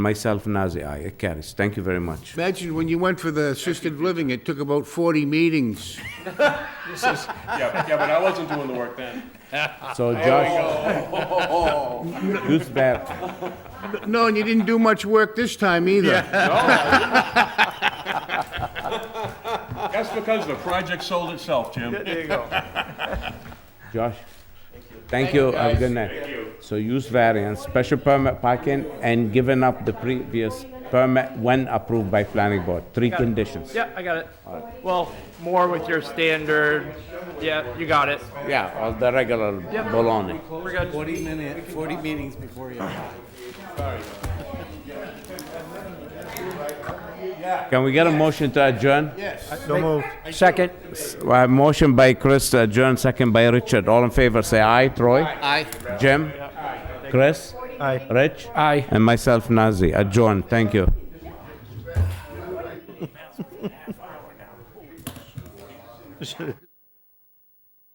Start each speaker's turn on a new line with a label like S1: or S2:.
S1: Myself, Nazir, aye, it carries. Thank you very much.
S2: Imagine when you went for the assisted living, it took about 40 meetings.
S3: Yeah, yeah, but I wasn't doing the work then.
S1: So Josh, who's back?
S2: No, and you didn't do much work this time either.
S3: That's because the project sold itself, Jim.
S1: Josh? Thank you, have a good night. So use variance, special permit parking, and giving up the previous permit when approved by planning board. Three conditions.
S4: Yeah, I got it. Well, more with your standard. Yeah, you got it.
S1: Yeah, all the regular baloney.
S4: We're good.
S5: 40 minute, 40 meetings before you.
S1: Can we get a motion to adjourn?
S5: Uh, So moved.
S1: Second. Motion by Chris to adjourn, second by Richard. All in favor, say aye. Troy? Aye. Jim? Chris?
S5: Aye.
S1: Rich? Aye. And myself, Nazir. Adjourn, thank you.